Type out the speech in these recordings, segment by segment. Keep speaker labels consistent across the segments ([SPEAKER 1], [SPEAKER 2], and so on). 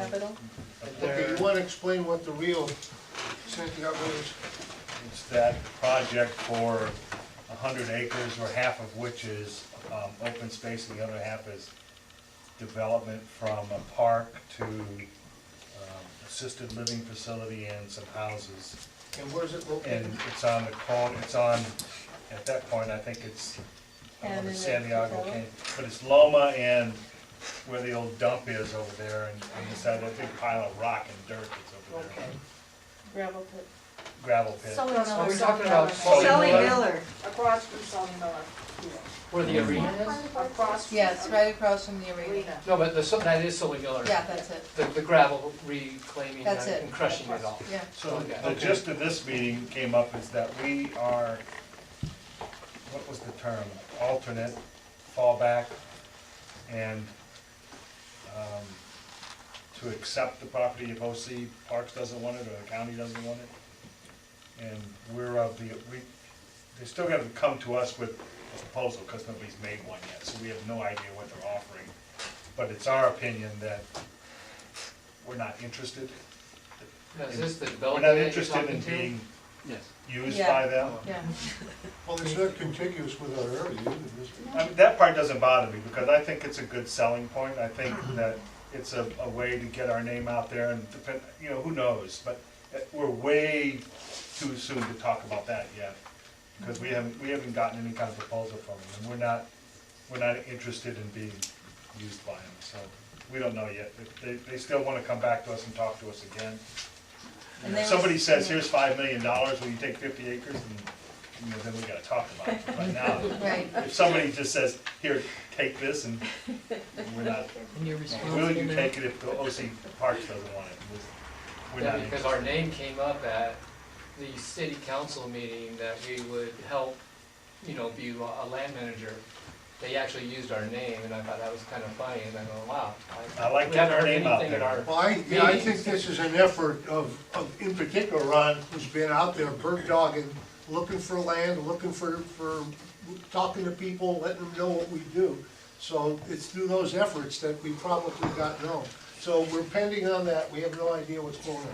[SPEAKER 1] Oh,
[SPEAKER 2] you wanna explain what the real Santiago is?
[SPEAKER 1] It's that project for a hundred acres, or half of which is um, open space, and the other half is development from a park to um, assisted living facility and some houses.
[SPEAKER 2] And where's it
[SPEAKER 1] And
[SPEAKER 2] located?
[SPEAKER 1] it's on the corner, it's on, at that point, I think it's, I don't know if it's
[SPEAKER 3] Cannon and
[SPEAKER 1] Santiago
[SPEAKER 3] Patello?
[SPEAKER 1] Canyon, but it's Loma and where the old dump is over there, and on the side, that big pile of rock and dirt that's over there.
[SPEAKER 3] Okay. Gravel pit.
[SPEAKER 1] Gravel pit.
[SPEAKER 3] Sully Miller.
[SPEAKER 4] Are we talking about
[SPEAKER 1] Sully
[SPEAKER 4] Sully
[SPEAKER 1] Miller?
[SPEAKER 4] Miller?
[SPEAKER 5] Across from Sully Miller,
[SPEAKER 4] Where the arena is?
[SPEAKER 5] across from.
[SPEAKER 3] Yes, right across from the arena.
[SPEAKER 5] Arena.
[SPEAKER 4] No, but the, Sul- that is Sully Miller.
[SPEAKER 3] Yeah, that's it,
[SPEAKER 4] The, the gravel reclaiming
[SPEAKER 3] That's it.
[SPEAKER 4] and crushing it all.
[SPEAKER 3] yeah.
[SPEAKER 1] So
[SPEAKER 4] Okay.
[SPEAKER 1] the gist of this meeting came up is that we are, what was the term? Alternate, fallback, and um, to accept the property if OC Parks doesn't want it or the county doesn't want it. And we're of the, we, they still haven't come to us with a proposal because nobody's made one yet, so we have no idea what they're offering. But it's our opinion that we're not interested.
[SPEAKER 4] Now, is this the
[SPEAKER 1] We're
[SPEAKER 4] development?
[SPEAKER 1] not
[SPEAKER 4] you're
[SPEAKER 1] interested in
[SPEAKER 4] talking to?
[SPEAKER 1] being
[SPEAKER 6] Yes.
[SPEAKER 1] used
[SPEAKER 3] Yeah.
[SPEAKER 1] by them.
[SPEAKER 3] Yeah,
[SPEAKER 2] Well, it's not contiguous with our area, either, is it?
[SPEAKER 1] I mean, that part doesn't bother me, because I think it's a good selling point, I think that it's a, a way to get our name out there and depend, you know, who knows? But uh, we're way too soon to talk about that yet, because we haven't, we haven't gotten any kind of proposal from them, and we're not, we're not interested in being used by them, so we don't know yet. If They, they still wanna come back to us and talk to us again.
[SPEAKER 3] And they
[SPEAKER 1] If Somebody
[SPEAKER 3] was-
[SPEAKER 1] says, here's five million dollars, will you take fifty acres, and, you know, then we gotta talk about it, but right now,
[SPEAKER 3] right.
[SPEAKER 1] if somebody just says, here, take this, and we're not,
[SPEAKER 7] And you're
[SPEAKER 1] will
[SPEAKER 7] responsible
[SPEAKER 1] you
[SPEAKER 7] now.
[SPEAKER 1] take it if the OC Parks doesn't want it? We're
[SPEAKER 4] Yeah,
[SPEAKER 1] not
[SPEAKER 4] because our
[SPEAKER 1] interested.
[SPEAKER 4] name came up at the city council meeting that we would help, you know, be a land manager. They actually used our name and I thought that was kind of funny and I go, wow.
[SPEAKER 1] I like
[SPEAKER 4] we haven't
[SPEAKER 1] getting our
[SPEAKER 4] heard
[SPEAKER 1] name out
[SPEAKER 4] anything in
[SPEAKER 1] there.
[SPEAKER 4] our-
[SPEAKER 2] Well, I, yeah, I think this is an effort of, of, in particular, Ron, who's been out there bird dogging, looking for land, looking for, for, talking to people, letting them know what we do. So it's through those efforts that we probably got known. So we're pending on that, we have no idea what's going on.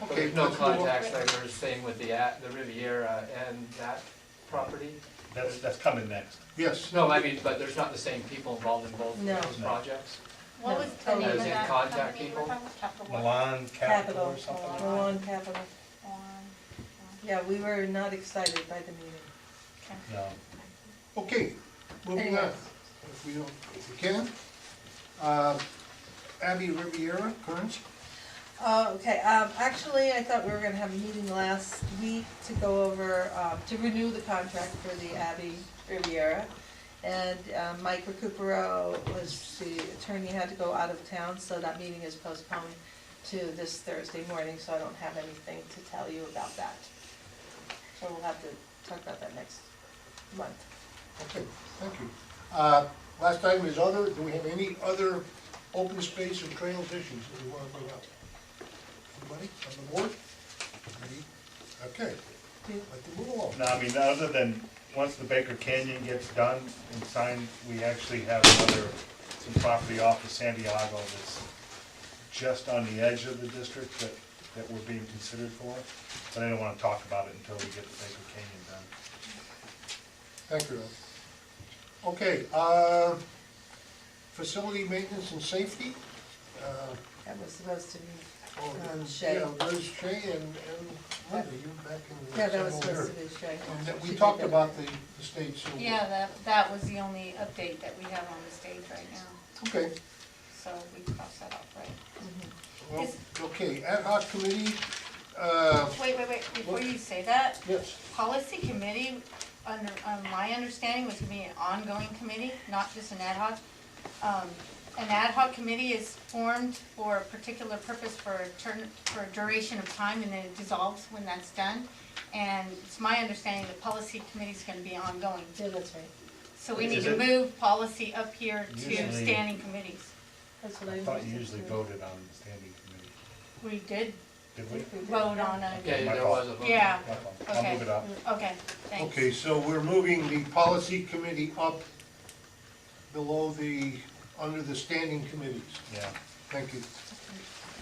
[SPEAKER 4] But
[SPEAKER 2] Okay,
[SPEAKER 4] There's no
[SPEAKER 2] let's move on.
[SPEAKER 4] contacts, like we were saying with the, at- the Riviera and that property?
[SPEAKER 1] That's, that's coming next.
[SPEAKER 2] Yes,
[SPEAKER 4] No, I mean, but there's not the same people involved in both of
[SPEAKER 3] No.
[SPEAKER 4] those projects?
[SPEAKER 3] What was the
[SPEAKER 4] name of that contact people?
[SPEAKER 1] Milan Capital
[SPEAKER 3] Capital,
[SPEAKER 1] or something like that.
[SPEAKER 3] Milan Capital. Yeah, we were not excited by the meeting.
[SPEAKER 1] No,
[SPEAKER 2] okay, moving on,
[SPEAKER 3] Anyways.
[SPEAKER 2] if we don't, if we can. Uh, Abby Riviera, Kearns?
[SPEAKER 3] Uh, okay, um, actually, I thought we were gonna have a meeting last week to go over, um, to renew the contract for the Abbey Riviera. And, um, Mike Recupero was, the attorney had to go out of town, so that meeting is postponed to this Thursday morning, so I don't have anything to tell you about that. So we'll have to talk about that next month.
[SPEAKER 2] Okay, thank you. Uh, Last item is other, do we have any other open space and trails issues that we want to bring up? Anybody on the board? Any? Okay, let them move along.
[SPEAKER 1] no, I mean, other than, once the Baker Canyon gets done and signed, we actually have another, some property off of Santiago that's just on the edge of the district that, that we're being considered for. But I don't wanna talk about it until we get the Baker Canyon done.
[SPEAKER 2] Thank you, Ron. Okay, uh, facility maintenance and safety. Uh,
[SPEAKER 3] That was supposed to be,
[SPEAKER 2] oh,
[SPEAKER 3] Um, Shay.
[SPEAKER 2] Yeah, Liz, Shay, and and Linda, you back in.
[SPEAKER 3] yeah, that was
[SPEAKER 2] San Jose.
[SPEAKER 3] supposed to be Shay.
[SPEAKER 2] And that
[SPEAKER 3] She
[SPEAKER 2] We
[SPEAKER 3] did
[SPEAKER 2] talked
[SPEAKER 3] that.
[SPEAKER 2] about the the state silver.
[SPEAKER 8] Yeah, that, that was the only update that we have on the stage right now,
[SPEAKER 2] Okay.
[SPEAKER 8] so we crossed that off, right?
[SPEAKER 2] Well, okay, ad hoc committee, uh,
[SPEAKER 8] Wait, wait, wait, before you say that,
[SPEAKER 2] yes,
[SPEAKER 8] policy committee, under, um, my understanding was to be an ongoing committee, not just an ad hoc. Um, An ad hoc committee is formed for a particular purpose for a turn, for a duration of time, and then it dissolves when that's done. And it's my understanding the policy committee's gonna be ongoing,
[SPEAKER 3] Yeah, that's right.
[SPEAKER 8] so we need
[SPEAKER 1] Is
[SPEAKER 8] to
[SPEAKER 1] it-
[SPEAKER 8] move policy up here to
[SPEAKER 1] Usually-
[SPEAKER 8] standing committees.
[SPEAKER 3] That's what I.
[SPEAKER 1] I thought you
[SPEAKER 3] understood.
[SPEAKER 1] usually voted on the standing committee,
[SPEAKER 8] We did
[SPEAKER 1] did we?
[SPEAKER 8] vote on it,
[SPEAKER 4] Okay, there was a vote.
[SPEAKER 8] yeah,
[SPEAKER 1] I'll move
[SPEAKER 8] Okay.
[SPEAKER 1] it up.
[SPEAKER 8] okay, thanks.
[SPEAKER 2] okay, so we're moving the policy committee up below the, under the standing committees,
[SPEAKER 1] Yeah,
[SPEAKER 2] thank you.